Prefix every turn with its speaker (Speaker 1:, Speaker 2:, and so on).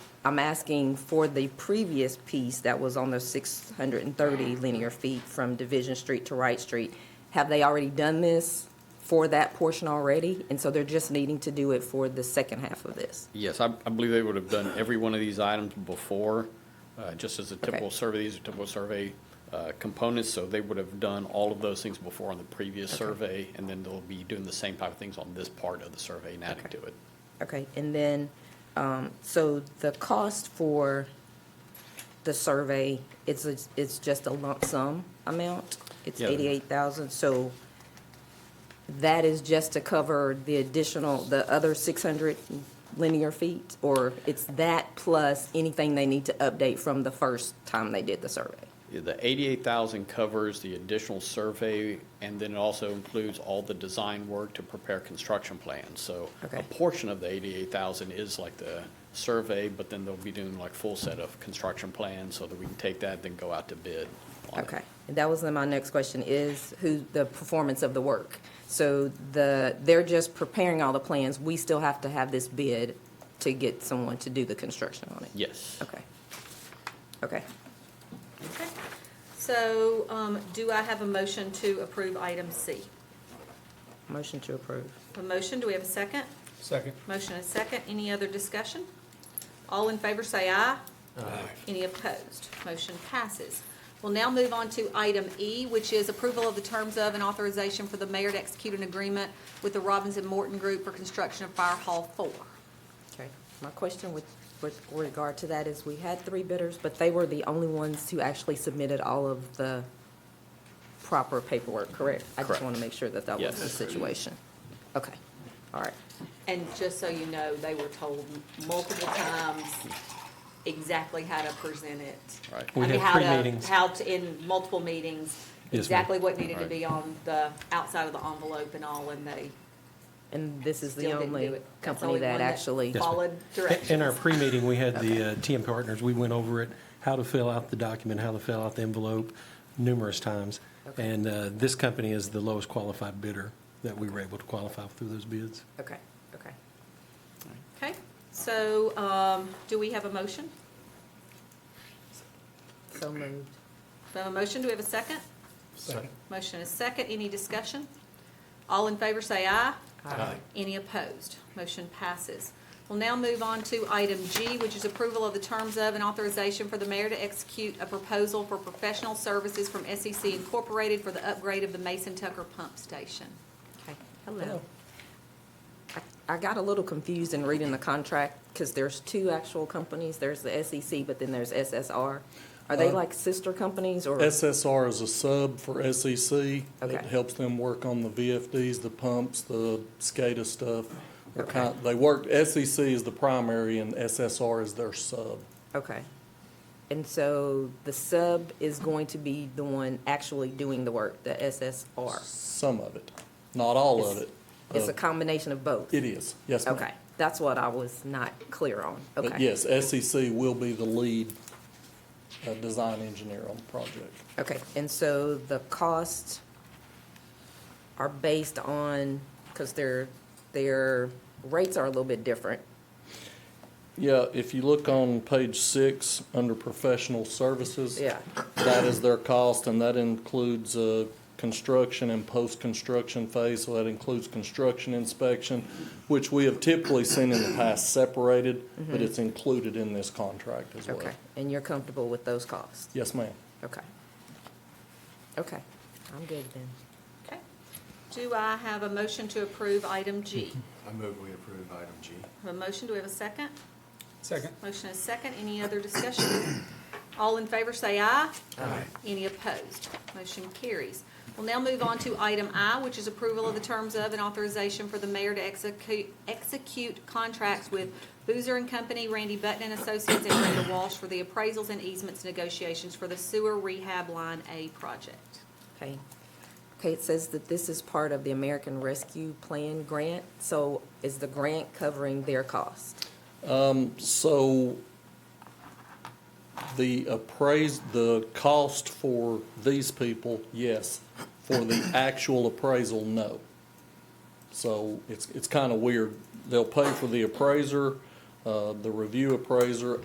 Speaker 1: I'm asking for the previous piece that was on the 630 linear feet from Division Street to Wright Street. Have they already done this for that portion already? And so they're just needing to do it for the second half of this?
Speaker 2: Yes, I, I believe they would have done every one of these items before, uh, just as a typical survey, these are typical survey, uh, components, so they would have done all of those things before on the previous survey, and then they'll be doing the same type of things on this part of the survey and adding
Speaker 1: Okay.
Speaker 2: to it.
Speaker 1: Okay, and then, um, so the cost for the survey, it's, a- it's just a lump sum amount? It's
Speaker 2: Yeah.
Speaker 1: eighty-eight thousand, so that is just to cover the additional, the other six hundred linear feet? Or it's that plus anything they need to update from the first time they did the survey?
Speaker 2: The eighty-eight thousand covers the additional survey, and then it also includes all the design work to prepare construction plans. So a
Speaker 1: Okay.
Speaker 2: portion of the eighty-eight thousand is like the survey, but then they'll be doing like full set of construction plans so that we can take that, then go out to bid on it.
Speaker 1: Okay, and that was then my next question, is who, the performance of the work. So the, they're just preparing all the plans, we still have to have this bid to get someone to do the construction on it?
Speaker 2: Yes.
Speaker 1: Okay. Okay,
Speaker 3: Okay. So um, do I have a motion to approve item C?
Speaker 1: motion to approve.
Speaker 3: A motion, do we have a second?
Speaker 4: Second.
Speaker 3: Motion and second, any other discussion? All in favor say aye. Aye. Any opposed? Motion passes. We'll now move on to item E, which is approval of the terms of and authorization for the mayor to execute an agreement with the Robbins and Morton Group for construction of Fire Hall Four.
Speaker 1: Okay, my question with, with regard to that is, we had three bidders, but they were the only ones who actually submitted all of the proper paperwork, correct? I just
Speaker 2: Correct.
Speaker 1: want to make sure that that was the
Speaker 2: Yes.
Speaker 1: situation. Okay, all right.
Speaker 3: And just so you know, they were told multiple times exactly how to present it.
Speaker 2: Right.
Speaker 3: I
Speaker 4: We
Speaker 3: mean,
Speaker 4: had
Speaker 3: how
Speaker 4: three
Speaker 3: to-
Speaker 4: meetings.
Speaker 3: How to, in multiple meetings,
Speaker 4: ma'am.
Speaker 3: exactly what needed to
Speaker 2: Right.
Speaker 3: be on the outside of the envelope and all, and they
Speaker 1: And this is
Speaker 3: still
Speaker 1: the
Speaker 3: didn't do it.
Speaker 1: only
Speaker 3: That's
Speaker 1: company
Speaker 3: only one
Speaker 1: that actually.
Speaker 3: Followed
Speaker 4: In
Speaker 3: directions.
Speaker 4: our pre-meeting, we had the uh, TM Partners, we went over it, how to fill out the document, how to fill out the envelope numerous times. And uh, this company is the lowest qualified bidder that we were able to qualify through those bids.
Speaker 1: Okay, okay.
Speaker 3: Okay, so, um, do we have a motion?
Speaker 1: So moved.
Speaker 3: Do we have a motion? Do we have a second?
Speaker 4: Second.
Speaker 3: Motion is second. Any discussion? All in favor say aye.
Speaker 1: Aye.
Speaker 3: Any opposed? Motion passes. We'll now move on to item G, which is approval of the terms of and authorization for the mayor to execute a proposal for professional services from SEC Incorporated for the upgrade of the Mason Tucker Pump Station.
Speaker 1: Okay, hello. I- I got a little confused in reading the contract because there's two actual companies. There's the SEC, but then there's SSR. Are
Speaker 5: Uh,
Speaker 1: they like sister companies or?
Speaker 5: SSR is a sub for SEC. It
Speaker 1: Okay.
Speaker 5: helps them work on the VFDs, the pumps, the SCADA stuff. They're
Speaker 1: Okay.
Speaker 5: kind- They work, SEC is the primary and SSR is their sub.
Speaker 1: Okay. And so the sub is going to be the one actually doing the work, the SSR.
Speaker 5: Some of it, not all of
Speaker 1: It's-
Speaker 5: it.
Speaker 1: It's
Speaker 5: Uh,
Speaker 1: a combination of both.
Speaker 5: It is, yes, ma'am.
Speaker 1: Okay, that's what I was not clear on.
Speaker 5: But
Speaker 1: Okay.
Speaker 5: yes, SEC will be the lead uh, design engineer on the project.
Speaker 1: Okay, and so the costs are based on, because their, their rates are a little bit different.
Speaker 5: Yeah, if you look on page six, under professional services.
Speaker 1: Yeah.
Speaker 5: That is their cost, and that includes, uh, construction and post-construction phase, so that includes construction inspection, which we have typically seen in the past separated, but it's included in this contract as well.
Speaker 1: Mm-hmm. Okay, and you're comfortable with those costs?
Speaker 5: Yes, ma'am.
Speaker 1: Okay. Okay, I'm good then.
Speaker 3: Okay. Do I have a motion to approve item G?
Speaker 6: I move we approve item G.
Speaker 3: Have a motion? Do we have a second?
Speaker 4: Second.
Speaker 3: Motion is second. Any other discussion? All in favor say aye. Aye. Any opposed? Motion carries. We'll now move on to item I, which is approval of the terms of and authorization for the mayor to execute, execute contracts with Boozer and Company, Randy Button and Associates, and Brenda Walsh for the appraisals and easements negotiations for the sewer rehab line A project.
Speaker 1: Okay. Okay, it says that this is part of the American Rescue Plan grant, so is the grant covering their cost?
Speaker 5: So the appraised, the cost for these people, yes. For the actual appraisal, no. So it's, it's kind of weird. They'll pay for the appraiser, uh, the review appraiser,